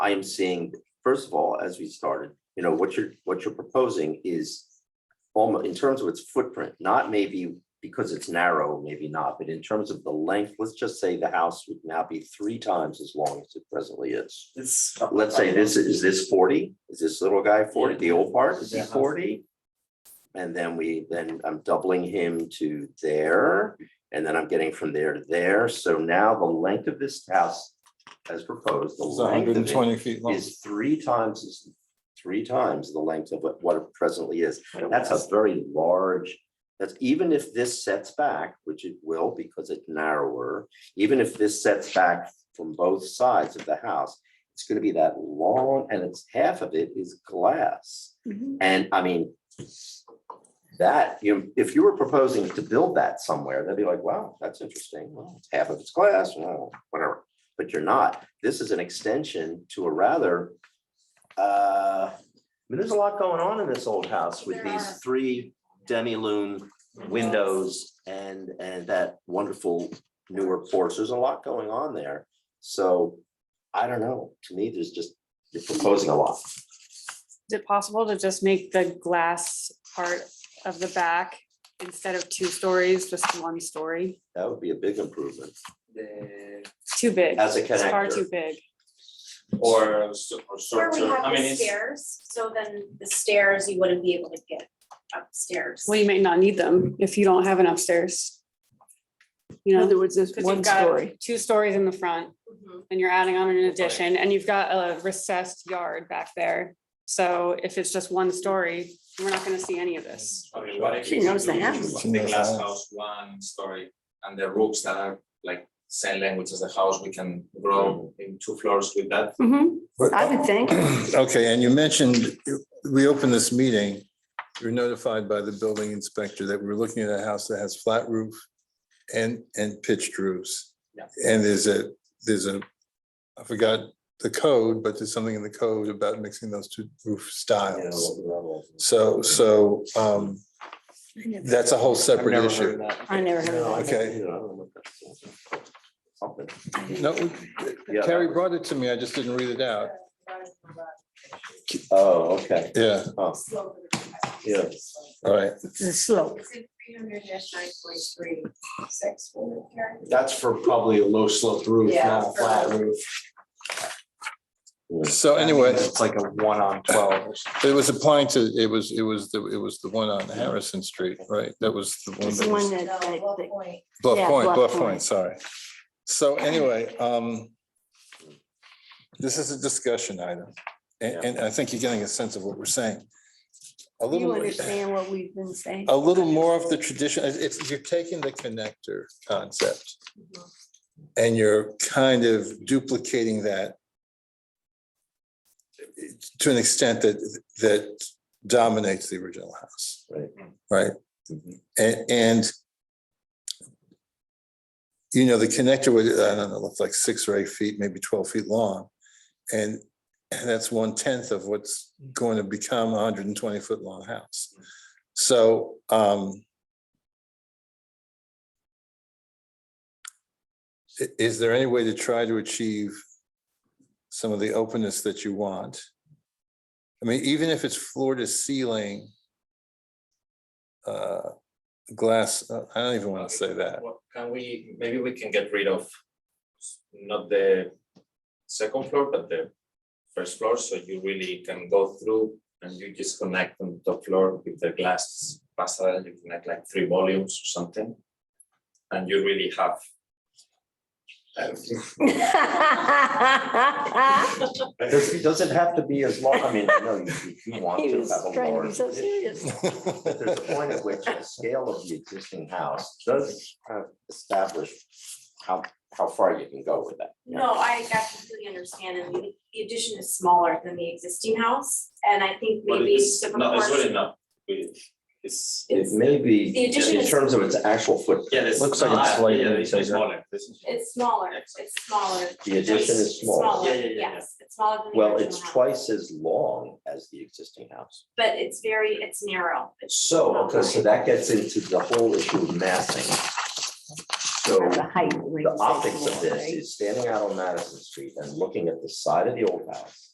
I am seeing, first of all, as we started, you know, what you're, what you're proposing is almost in terms of its footprint, not maybe because it's narrow, maybe not, but in terms of the length, let's just say the house would now be three times as long as it presently is. It's. Let's say this, is this forty? Is this little guy forty, the old part, is he Yeah. forty? And then we, then I'm doubling him to there, and then I'm getting from there to there. So now the length of this house as proposed, the It's hundred length and of it twenty feet long. is three times, as- three times the length of what what it presently is. That's a very large, that's even if this sets back, which it will because it's narrower, even if this sets back from both sides of the house, it's gonna be that long and it's half of it is glass. Mhm. And I mean, that, you, if you were proposing to build that somewhere, they'd be like, wow, that's interesting. Well, it's half of its glass, well, whatever. But you're not. This is an extension to a rather, uh, I mean, there's a lot going on in this old house with There are. these three demi-lume windows and, and that wonderful newer porch. There's a lot going on there. So I don't know. To me, there's just, you're proposing a lot. Is it possible to just make the glass part of the back, instead of two stories, just one story? That would be a big improvement. Too big. As a It's far connector. too big. Or, s- or Where sort we of, have I mean, the it's, stairs, so then the stairs, you wouldn't be able to get upstairs. Well, you may not need them if you don't have an upstairs. You In know, other words, there's because one you've story. got two stories in the front Mhm. and you're adding on an Okay. addition and you've got a recessed yard back there. So if it's just one story, we're not gonna see any of this. I mean, what if She you knows the do house. She The knows the glass house. house, one story, and the roofs that are like same language as the house, we can grow in two floors with that. I would think. Okay, and you mentioned, we opened this meeting, we were notified by the building inspector that we we're looking at a house that has flat roof and, and pitched roofs. Yeah. And there's a, there's a, I forgot the code, but there's something in the code about mixing those two roof styles. So, so um, that's a whole separate issue. I never heard of that. Okay. Something. No, Yeah, that Carrie was- brought it to me, I just didn't read it out. Oh, okay. Yeah, Yeah. all right. It's a slope. It's in three hundred nine point three, six. That's for probably a low sloped roof, not a flat roof. So anyway. It's like a one on twelve or something. It was applying to, it was, it was, the it was the one on Harrison Street, right? That was the one It's the that one was that, that- that- Bluff yeah, Point, Bluff Bluff Point. Point, sorry. So anyway, um, this is a discussion item. And, and I think you're getting a sense of what we're saying. A you little, understand what we've been saying? a little more of the tradition, it's- it's, you're taking the connector concept Mm-hmm. and you're kind of duplicating that to an extent that, that dominates the original house. Right. Right? And, and you know, the connector was, I don't know, looked like six or eight feet, maybe twelve feet long. And and that's one tenth of what's going to become a hundred and twenty foot long house. So, um, i- is there any way to try to achieve some of the openness that you want? I mean, even if it's floor to ceiling, uh, glass, uh, I don't even want to say that. What can we, maybe we can get rid of, not the second floor, but the first floor, so you really can go through and you just connect on the top floor with the glass passerelle, you connect like three volumes or something. And you really have everything. It doesn't have to be as long, I mean, no, you, you do want He to was have a trying to large. be so serious. But there's a point at which the scale of the existing house does kind of establish how, how far you can go with that. No, I I completely understand, and the- the addition is smaller than the existing house, and I think But maybe it's the not, it's really proportion. not, it- it's. It It's, may The be, addition in is- terms of its actual footprint, Yeah, it's. Looks like it's ah, slightly yeah, it's bigger. smaller, this is. it's smaller, it's smaller. the addition is It's small. Yeah, yeah, yeah, yeah. Yes, it's smaller than the Well, original it's house. twice as long as the existing house. But it's very, it's narrow. It's So, not okay, so wide. that gets into the whole issue of massing. So the height. the optics of this is standing out on Madison Street and looking at the side of the old house